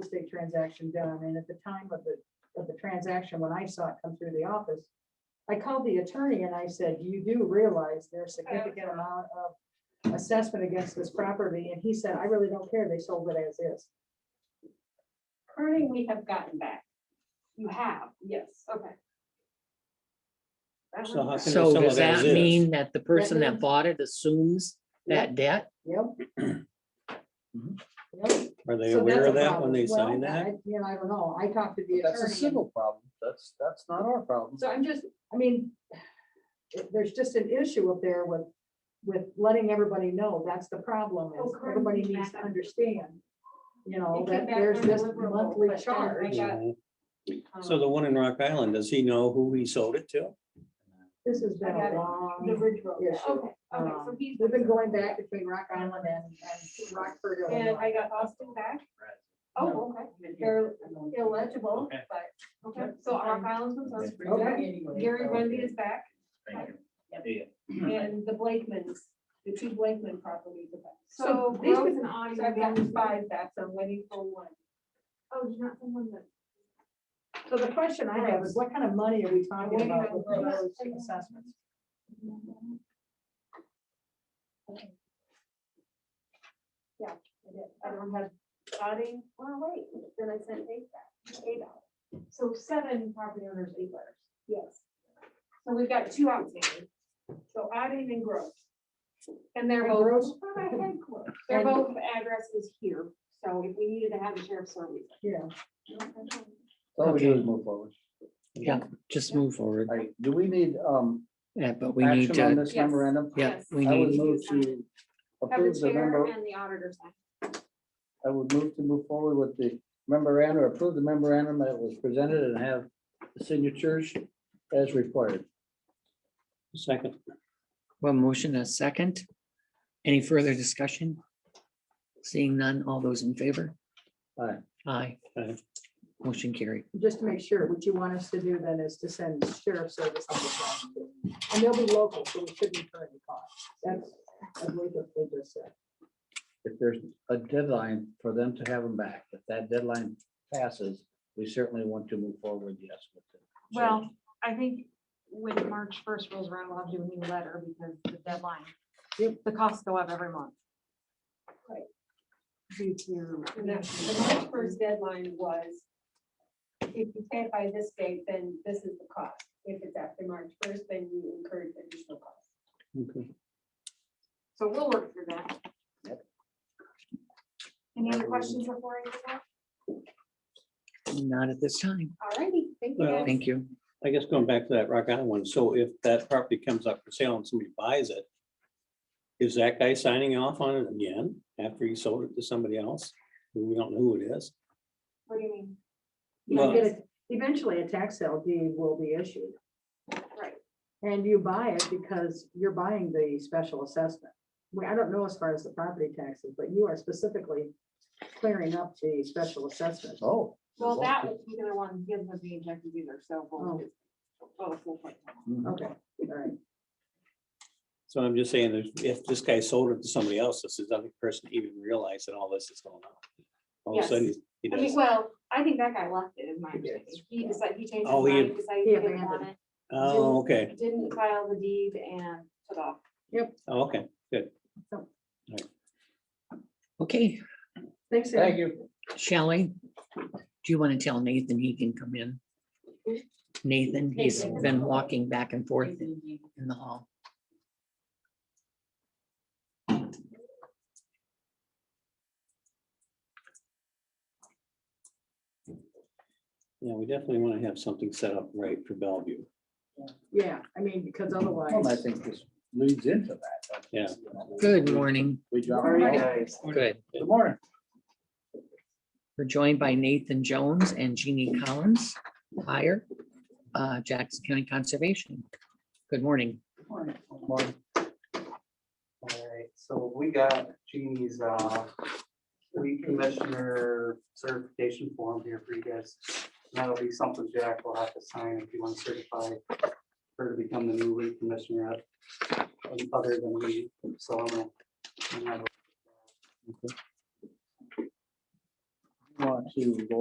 estate transaction done, and at the time of the, of the transaction, when I saw it come through the office, I called the attorney and I said, you do realize there's Oh, significant amount of assessment against this property, and he said, I really don't care, they sold it as is. Pruning we have gotten back. You have, Yes. okay. That So how one's can back. some So of does theirs that is. mean that the person that means- bought it assumes that debt? Yep. Yep. Are they So aware that's a of that when problem. they Well, sign that? I- You know, I don't know, I talked to the That's attorney. a civil problem. That's, that's not our problem. So I'm just, I mean, it- there's just an issue up there with, with letting everybody know that's the problem Oh, is correct. everybody needs to understand. You know, It came that back there's this undeliverable, monthly but then I charge. got- Mhm. Um, So the one in Rock Island, does he know who he sold it to? This has been I got a it. The long. Ridge Road, yeah, issue. okay, okay, so um, he's. We've been going back between Rock Island and, and Rockford. And Illinois. I got Austin back? No. Oh, okay, they're illegible, but, okay, so Rock Island's been sold. Okay. Gary Rundy is back, and the Blakemans, the two Blakeman properties are back. So So this gross, was an audio. so I've gotten five back, so I'm waiting for one. Oh, you're not someone that. So the question I have is what kind of money are we talking Waiting about on with gross. those assessments? I did. I don't have body, well, wait, then I sent eight back, eight out. So seven property owners, eight letters. Yes. So we've got two outstanding, so adding and gross. And they're And both. Gross? But I had Gross. They're And- both addresses here, so if we needed to have a sheriff's service. Yeah. All we do Okay. is move forward. Yeah, just move forward. All right, do we need, um, Yeah, but we need action on to, this Yes. memorandum? yeah, Yes. we I would need, move to Have approve the the chair member, and the auditor sign. I would move to move forward with the memorandum, or approve the memorandum that was presented and have the signatures as required. Second, one motion, a second. Any further discussion? Seeing none, all those in favor? Aye. Aye. Aye. Motion carried. Just to make sure, what you want us to do then is to send sheriff service on the ground. And they'll be local, so we shouldn't incur any cost. That's, I believe what they just said. If there's a deadline for them to have them back, if that deadline passes, we certainly want to move forward, yes. with the change. Well, I think when March first rolls around, we'll have to do a new letter because the deadline, the costs go up every month. Right. Due to. The March first deadline was, if you pay it by this date, then this is the cost. If it's after March first, then you incur additional costs. okay. So we'll work through that. Yep. Any other questions before I go? Not at this time. All righty, thank you. Well, guys. Thank you. I guess going back to that Rock Island one, so if that property comes up for sale and somebody buys it, is that guy signing off on it again after he sold it to somebody else? who We don't know who it is. What do you mean? You know, Well- get a- Eventually, a tax sale deed will be issued. Right. And you buy it because you're buying the special assessment. Well, I don't know as far as the property taxes, but you are specifically clearing up the special assessment. Oh. Well, that particular one, he hasn't been injected either, so. Oh. we'll just- well, it's full point. Mhm. Okay, all right. So I'm just saying, if- if this guy sold it to somebody else, this is other person even realize that all this is going on. All of a sudden, he- he I mean, does. well, I think that guy left it, is my He did. understanding. He decided, he changed his Oh, he- mind, decided he he didn't want abandoned it. Oh, okay, didn't- Didn't file the deed and took off. Oh, okay, good. Okay, Thanks. Sarah. Thank you. Shelley, do you want to tell Nathan he can come in? Nathan, he's Nathan. been walking back and forth in in the hall. Yeah, we definitely want to have something set up right for Bellevue. Yeah, I mean, because Well, I otherwise, think this leads into that. Yeah. Good morning. We drop. Very Good. Good morning. We're joined by Nathan Jones and Jeannie Collins, higher uh, Jackson County Conservation. Good morning. Morning. Alright, so we got Jeannie's, uh, weed commissioner certification form here for you guys. And That'll be something Jack will have to sign if you want to certify her to become the new weed commissioner at- other than weed, so I'm gonna. I'm gonna- want to go